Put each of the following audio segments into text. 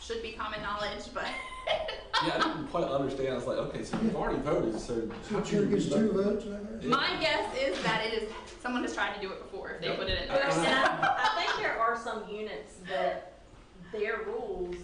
should be common knowledge, but Yeah, I didn't quite understand. I was like, okay, so you've already voted, so So chair gets two votes, I heard. my guess is that it is someone has tried to do it before if they Yep. put it in Well, there. and I, I think there are some units that their rules,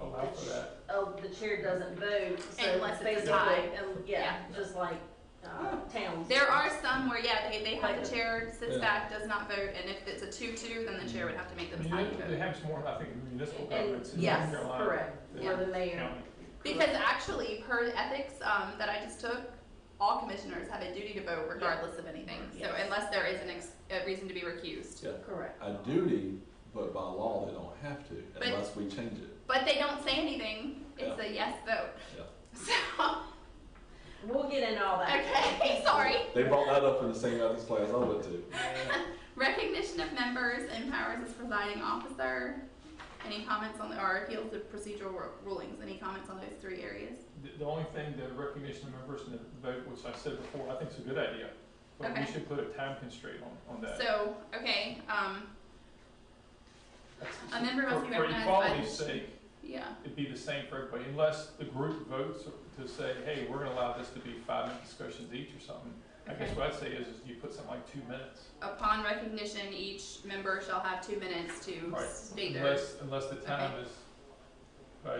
allow for that. of the chair doesn't vote, so Unless it's a basically, tie. and, yeah, just like, uh, towns. There are some where yeah, they, they have the chair sits back, does not vote, and if it's a two-two, then the chair would have to make the deciding They vote. have some more, I think, municipal And- governments in Yes, North Carolina. correct, than where the mayor, county. Because actually, per ethics um, that I just took, all commissioners have a duty to vote regardless of anything. So Yes. unless there is an ex- a reason to be recused, correct. A duty, but by law they don't have to But- unless we change it. but they don't say anything. It's Yeah. a yes vote. Yeah. So We'll get into all that. okay, sorry. They brought that up in the same ethics class I went to. Recognition of members and powers as presiding officer. Any comments on the, or appeals to procedural ru- rulings? Any comments on those three areas? The, the only thing, the recognition of members and the vote, which I said before, I think is a good idea. But we Okay. should put a time constraint on, on that. So, okay, um, That's- a member must for- be recognized by- For equality's sake, yeah, it'd be the same for everybody, unless the group votes to say, hey, we're gonna allow this to be five-minute discussions each or something. I guess Okay. what I'd say is, is you put something like two minutes. upon recognition, each member shall have two minutes to Right. state their. Unless, unless the time is by,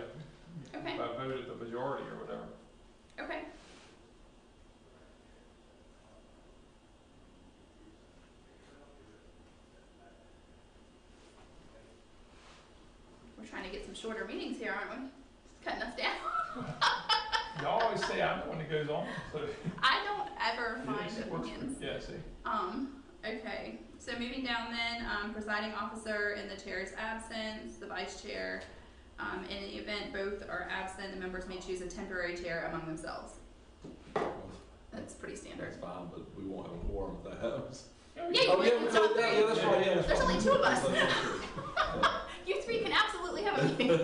Okay. by vote of the majority or whatever. Okay. We're trying to get some shorter meetings here, aren't we? It's cutting us down. Y'all always say I'm the one that goes on, so, I don't ever find yes, it works for- opinions. yeah, see. Um, okay, so moving down then, um, presiding officer in the chair's absence, the vice chair. Um, in the event both are absent, the members may choose a temporary chair among themselves. That's pretty standard. That's fine, but we won't have a quorum if that happens. Yeah, you Oh, yeah, can we talk voted that. three. Yeah, that's right, yeah, that's There's right. only two of us. That's true. You three can absolutely have a meeting.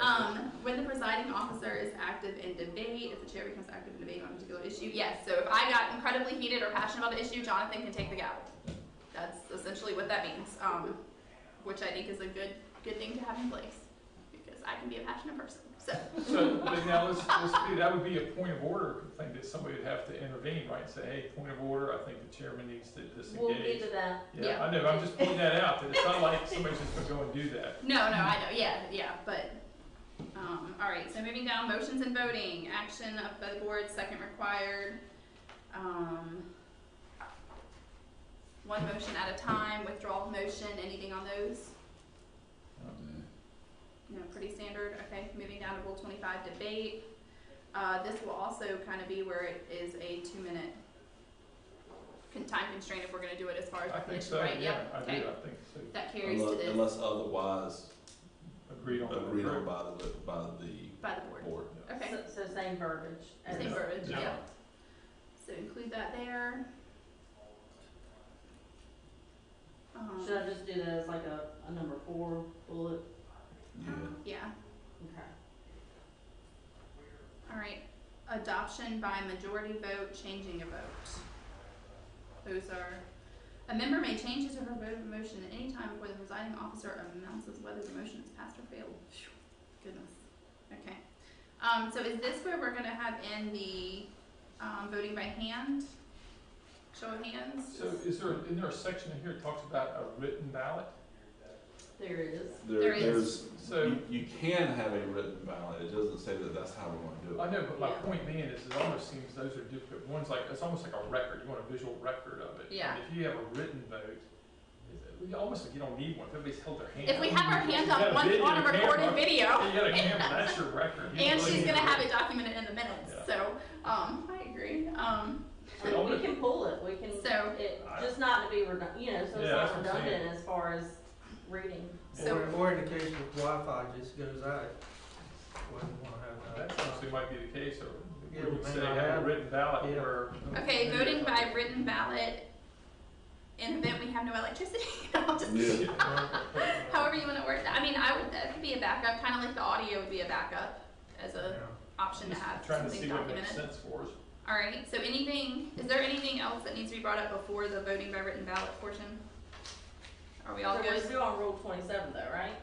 um, when the presiding officer is active in debate, if the chair becomes active in debate on a particular issue, yes. So if I got incredibly heated or passionate about the issue, Jonathan can take the gavel. That's essentially what that means, um, which I think is a good good thing to have in place because I can be a passionate person. So So, but now let's, let's do, that would be a point of order thing that somebody would have to intervene, right? Say, hey, point of order, I think the chairman needs to We'll get disengage. to that. Yeah, I know, I'm just pointing that out, that it's not like somebody's just gonna go and do that. no, no, I know, yeah, yeah, but. Um, all right, so moving down, motions and voting, action of the board, second required. Um, one motion at a time, withdrawal of motion, anything on those? Um, No, pretty standard, okay, moving down to rule twenty-five, debate. Uh, this will also kind of be where it is a two-minute con- time constraint if we're gonna do it as far as I think recognition, so, right? yeah, Yep, I do, I okay. think so. That carries to Unless, the, unless otherwise Agreed on that. agreed on by the, by the by the board, board. okay, So- So same verbiage. as- same verbiage, Yeah. yeah. So include that there. Um, Should I just do that as like a, a number four bullet? Yeah. yeah, Okay. alright, adoption by majority vote, changing a vote. Those are, a member may change his or her vote of motion at any time before the presiding officer announces whether the motion is passed or failed. Phew, Goodness, okay. Um, so is this where we're gonna have in the, um, voting by hand? Show of hands? So is there, isn't there a section in here that talks about a written ballot? There it is. There There, is. there's, So- you, you can have a written ballot, it doesn't say that that's how we're gonna do it. I know, but my Yeah. point being is it almost seems those are duplicate. One's like, it's almost like a record. You want a visual record of it. And Yeah. If you have a written vote, it's- you almost like you don't need one. If everybody's held their hand. If we up, have our you hands got on one, video, on a recorded camera. video, You got a camera, that's your record. You and really she's need gonna a have record. it documented in the minutes, Yeah. so, um, I agree, um, We all We do. can pull it, we can, So- it, just not to be redundant, you know, so it's Yeah, that's not what I'm saying. redundant as far as reading. So- Or, or in the case of Wi-Fi just goes out. Wouldn't wanna have that. Uh, That actually might be the case, or Yeah, we we would may say not have a have- written ballot Yeah. where. okay, voting by written ballot. In the event we have no electricity, I'll just, Yeah. however you wanna work that, I mean, I would, that could be a backup, kinda like the audio would be a backup as Yeah. a option to have Trying to something see what makes documented. sense for us. Alright, so anything, is there anything else that needs to be brought up before the voting by written ballot portion? Are we all So good? we're still on rule twenty-seven though, right?